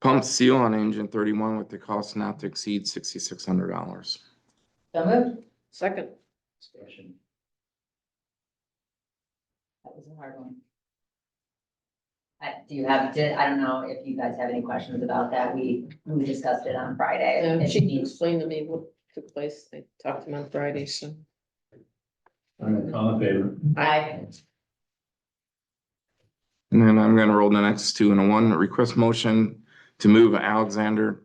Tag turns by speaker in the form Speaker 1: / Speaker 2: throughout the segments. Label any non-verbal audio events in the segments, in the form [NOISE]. Speaker 1: Pump seal on engine thirty-one with the cost not to exceed sixty-six hundred dollars.
Speaker 2: So moved.
Speaker 3: Second.
Speaker 2: Discussion. That was a hard one. I- do you have, did, I don't know if you guys have any questions about that. We, we discussed it on Friday.
Speaker 3: And
Speaker 2: It
Speaker 3: she
Speaker 2: needs-
Speaker 3: explained to me what took place. I talked to him on Friday, so.
Speaker 4: All right, all in favor?
Speaker 2: I,
Speaker 1: And then I'm gonna roll the next two and a one, request motion to move Alexander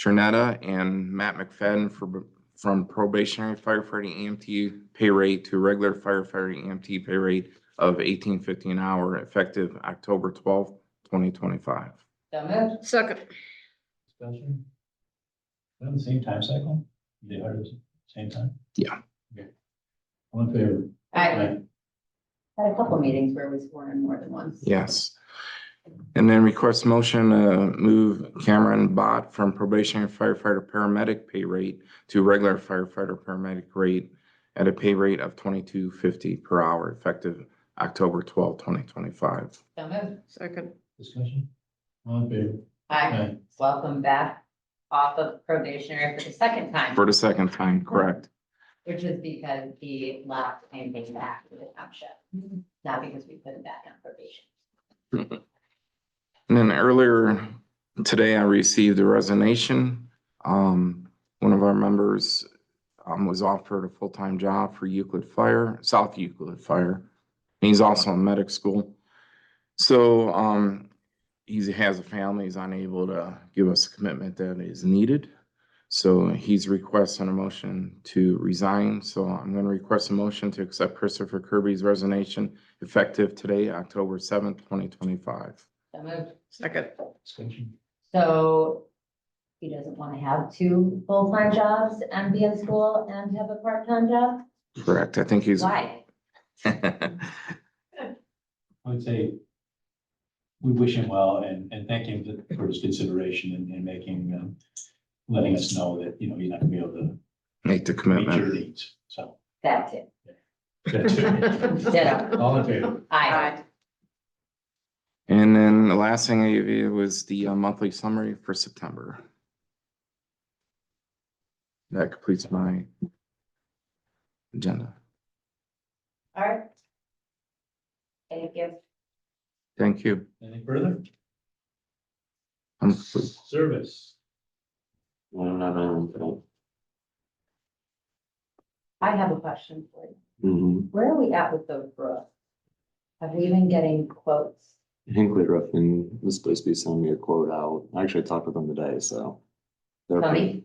Speaker 1: Chernetta and Matt McFadden for, from probationary firefighting EMT pay rate to regular firefighting EMT pay rate of eighteen fifty an hour effective October twelfth, twenty twenty-five.
Speaker 2: so moved.
Speaker 3: Second.
Speaker 4: Discussion? Is that the same time cycle? They are the same time?
Speaker 1: Yeah.
Speaker 4: Okay. All in favor?
Speaker 2: I had a couple meetings where we swore in more than once.
Speaker 1: Yes. And then request motion to move Cameron Bott from probationary firefighter paramedic pay rate to regular firefighter paramedic rate at a pay rate of twenty-two fifty per hour effective October twelfth, twenty twenty-five.
Speaker 2: So moved.
Speaker 3: Second.
Speaker 4: Discussion? All in favor?
Speaker 2: I
Speaker 4: Aye.
Speaker 2: welcome back off of probationary for the second time,
Speaker 1: For the second time, correct?
Speaker 2: which is because he left and came back to the township. Not because we put him back on probation.
Speaker 1: And then earlier today, I received a resignation. Um, one of our members um, was offered a full-time job for Euclid Fire, South Euclid Fire. And He's also in medic school. So, um, he has a family, he's unable to give us a commitment that is needed. So he's requesting a motion to resign. So I'm gonna request a motion to accept Christopher Kirby's resignation effective today, October seventh, twenty twenty-five.
Speaker 2: So moved.
Speaker 3: Second.
Speaker 4: Discussion?
Speaker 2: So he doesn't want to have two full-time jobs and be in school and have a part-time job?
Speaker 1: Correct, I think he's. [LAUGHS]
Speaker 2: Why?
Speaker 4: I would say we wish him well and, and thank him for his consideration and, and making, um, letting us know that, you know, he's not gonna be able to
Speaker 1: Make the
Speaker 4: meet your
Speaker 1: commitment.
Speaker 4: needs, so. [LAUGHS]
Speaker 2: That's it.
Speaker 4: that's it.
Speaker 2: Ditto.
Speaker 4: All in favor?
Speaker 2: I,
Speaker 3: Aye.
Speaker 1: And then the last thing I gave you was the uh, monthly summary for September. That completes my agenda.
Speaker 2: all right. Any gifts?
Speaker 1: Thank you.
Speaker 4: Anything further?
Speaker 1: I'm complete.
Speaker 4: Service.
Speaker 5: Well, I'm not on film.
Speaker 2: I have a question for you.
Speaker 5: Mm-hmm.
Speaker 2: Where are we at with those roofs? Have we been getting quotes?
Speaker 5: Hinkley Roofing was supposed to be sending me a quote out. I actually talked with them today, so. they're-
Speaker 2: Tony,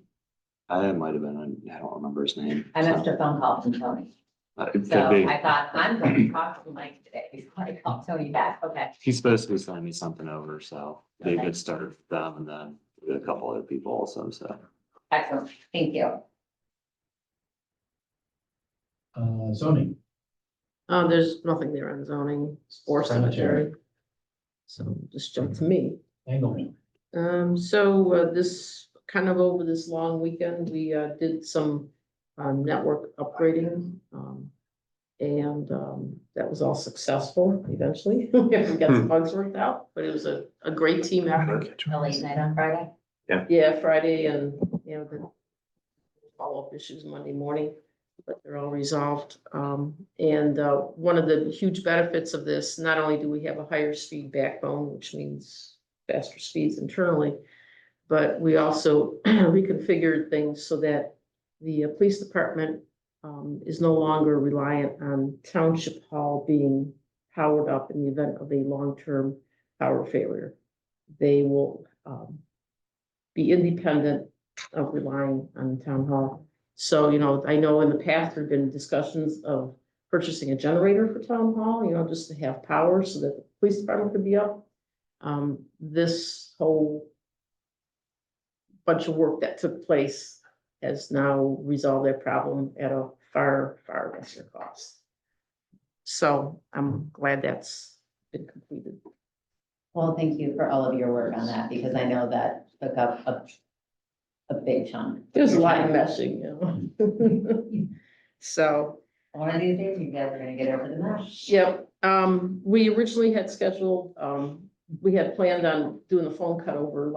Speaker 5: I might have been, I don't remember his name.
Speaker 2: I missed
Speaker 5: so,
Speaker 2: a phone call from Tony.
Speaker 5: uh, It
Speaker 2: So
Speaker 5: could be.
Speaker 2: I thought, I'm going to talk to Mike today before I call Tony back. Okay.
Speaker 5: He's supposed to be sending me something over, so be a
Speaker 2: Okay.
Speaker 5: good start with them and then with a couple other people also, so.
Speaker 2: Excellent. Thank you.
Speaker 4: Uh, zoning.
Speaker 3: Uh, there's nothing there on zoning or cemetery. So just jump to me.
Speaker 4: Engelman.
Speaker 3: Um, so uh, this, kind of over this long weekend, we uh, did some um, network upgrading. um, And um, that was all successful eventually. [LAUGHS] We got some bugs worked out, but it was a, a great team effort.
Speaker 2: A late night on Friday?
Speaker 3: Yeah, Friday and, you know, the follow-up issues Monday morning, but they're all resolved. Um, and, uh, one of the huge benefits of this, not only do we have a higher speed backbone, which means faster speeds internally, but we also [CLEARS THROAT] reconfigured things so that the uh, police department, um, is no longer reliant on township hall being powered up in the event of a long-term power failure. They will, um, be independent of relying on town hall. So, you know, I know in the past, there've been discussions of purchasing a generator for town hall, you know, just to have power so that the police department could be up. Um, this whole bunch of work that took place has now resolved that problem at a far, far lesser cost. So I'm glad that's been completed.
Speaker 2: Well, thank you for all of your work on that, because I know that took up a, a big chunk. of
Speaker 3: There's a
Speaker 2: your
Speaker 3: lot of
Speaker 2: time.
Speaker 3: meshing, you know? [LAUGHS] So.
Speaker 2: One of these days, you guys are gonna get over the mesh.
Speaker 3: Yep, um, we originally had scheduled, um, we had planned on doing the phone cut over